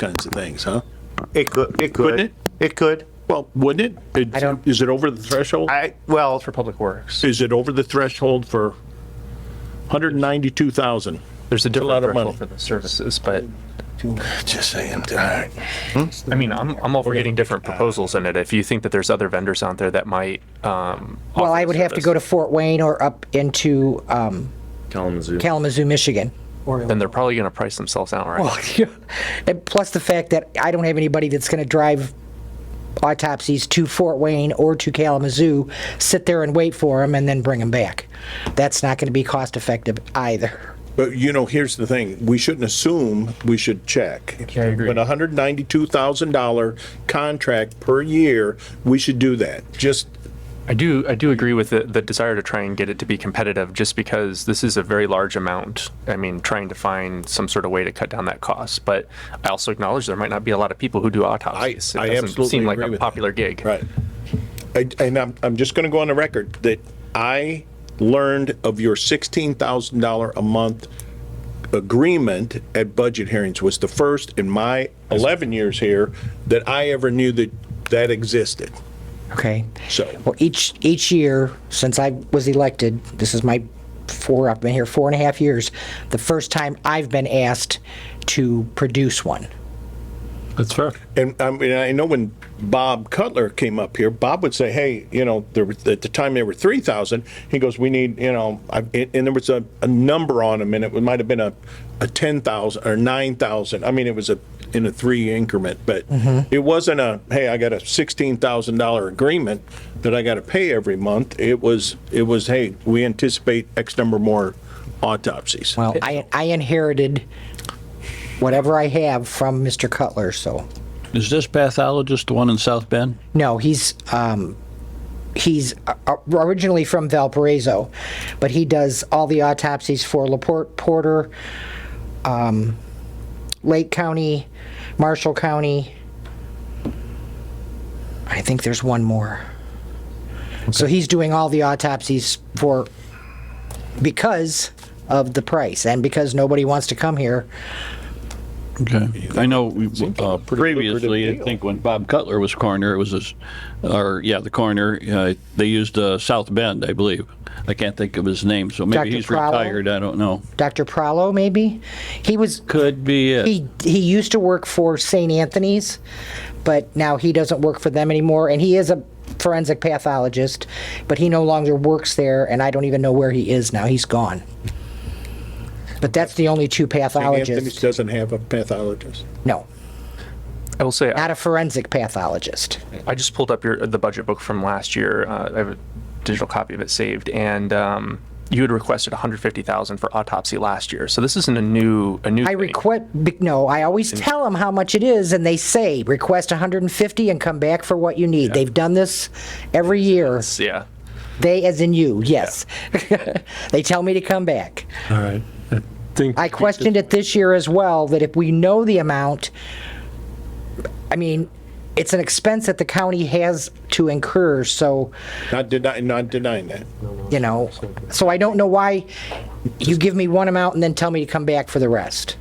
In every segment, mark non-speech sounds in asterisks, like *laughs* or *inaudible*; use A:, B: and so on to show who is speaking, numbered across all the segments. A: kinds of things, huh?
B: It could, it
A: Couldn't
B: could,
A: it?
B: it could.
A: Well, wouldn't it? It-
C: I don't-
A: Is it over the threshold?
B: I, well, for Public Works.
A: Is it over the threshold for 192,000?
C: There's a
A: lot
C: different
A: of
C: threshold
A: money.
C: for the services, but
A: Just saying, all right.
C: I mean, I'm, I'm all for getting different proposals in it. If you think that there's other vendors out there that might, um.
D: Well, I would have to go to Fort Wayne or up into um,
E: Kalamazoo.
D: Kalamazoo, Michigan. *laughs* Or
C: Then they're probably gonna price themselves out, right?
D: and plus the fact that I don't have anybody that's going to drive autopsies to Fort Wayne or to Kalamazoo, sit there and wait for them, and then bring them back. That's not going to be cost effective either.
A: But you know, here's the thing, we shouldn't assume, we should check.
C: I agree.
A: But a hundred ninety-two thousand dollar contract per year, we should do that, just,
C: I do, I do agree with the, the desire to try and get it to be competitive, just because this is a very large amount. I mean, trying to find some sort of way to cut down that cost, but I also acknowledge there might not be a lot of people who do autopsies.
A: I
C: It doesn't
A: absolutely
C: seem like
A: agree
C: a
A: with that.
C: Popular gig.
A: right. I- And I'm, I'm just gonna go on the record that I learned of your sixteen thousand dollar a month agreement at budget hearings was the first in my eleven years here that I ever knew that that existed.
D: Okay.
A: So-
D: Well, each, each year since I was elected, this is my four, I've been here four and a half years, the first time I've been asked to produce one.
F: That's fair.
A: And I mean, I know when Bob Cutler came up here, Bob would say, "Hey, you know, there was, at the time there were three thousand. He goes, "We need, you know," I, and and there was a, a number on them, and it might have been a, a ten thousand or nine thousand. I mean, it was a in a three increment, but it wasn't a hey, I got a sixteen thousand dollar agreement that I got to pay every month. It was it was hey, we anticipate X number more autopsies.
D: Well, I, I inherited whatever I have from Mr. Cutler, so.
F: Is this pathologist the one in South Bend?
D: No, he's, um, he's uh, uh, originally from Valparaiso, but he does all the autopsies for LaPorte, Porter, um, Lake County, Marshall County. I think there's one more. So he's doing all the autopsies for, because of the price and because nobody wants to come here.
F: Okay. I know we- uh, previously, I
A: deal.
F: think when Bob Cutler was coroner, it was this, or yeah, the coroner, uh, they used uh, South Bend, I believe. I can't think of his name, so maybe
D: Dr.
F: he's
D: Crowell?
F: retired. I don't know.
D: Dr. Prallo, maybe? He was,
F: Could be it.
D: He he used to work for St. Anthony's, but now he doesn't work for them anymore. And he is a forensic pathologist, but he no longer works there. And I don't even know where he is now. He's gone. But that's the only two
A: Anthony's
D: pathologists.
A: doesn't have a pathologist.
D: No,
C: I will say,
D: not a forensic pathologist.
C: I just pulled up your the budget book from last year. Uh, I have a digital copy of it saved, and um, you had requested 150,000 for autopsy last year. So this isn't a new a new.
D: I
C: thing.
D: request no. I always tell them how much it is, and they say request 150 and come back for what you need. They've done this every year.
C: Yeah.
D: They, as in you, yes. *laughs* they tell me to come back.
E: All right. I think
D: I questioned it this year as well, that if we know the amount, I mean, it's an expense that the county has to incur, so,
A: Not denying, not denying that.
D: you know, so I don't know why you give me one amount and then tell me to come back for the rest.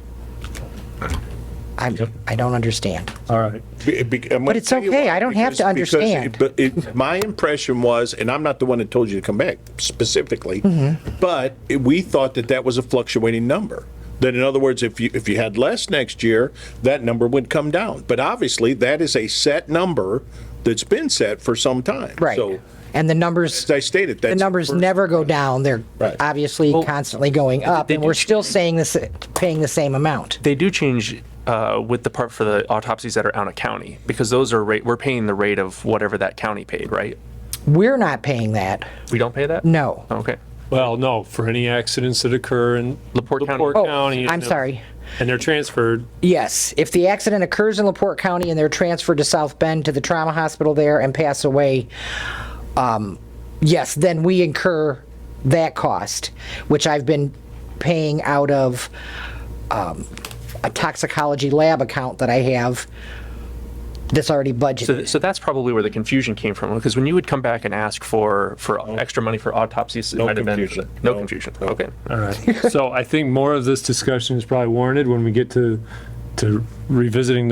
D: I, I don't understand.
E: All right.
A: But
D: it's okay, I don't have to understand.
A: But it, my impression was, and I'm not the one that told you to come back specifically,
D: Mm-hmm.
A: but it- we thought that that was a fluctuating number. That in other words, if you, if you had less next year, that number would come down. But obviously, that is a set number that's been set for some time.
D: Right.
A: So,
D: And the numbers,
A: as I stated,
D: the
A: that's.
D: numbers never go down, they're
A: Right.
D: obviously constantly going up,
C: they
D: and
C: do
D: we're still saying this, paying the same amount.
C: They do change uh, with the part for the autopsies that are out of county because those are rate. We're paying the rate of whatever that county paid, right?
D: We're not paying that,
C: We don't pay that.
D: no.
C: Okay.
E: Well, no, for any accidents that occur in
C: LaPorte County.
E: LaPorte
C: Oh,
E: County.
D: I'm
E: and-
D: sorry.
E: And they're transferred.
D: Yes, if the accident occurs in LaPorte County and they're transferred to South Bend to the trauma hospital there and pass away, um, yes, then we incur that cost, which I've been paying out of um, a toxicology lab account that I have that's already
C: So,
D: budgeted.
C: so that's probably where the confusion came from because when you would come back and ask for for extra money for autopsies, it
A: No
C: might have been-
A: confusion.
C: No,
A: No,
C: confusion.
A: no.
C: Okay.
D: *laughs*
E: All right. So I think more of this discussion is probably warranted when we get to, to revisiting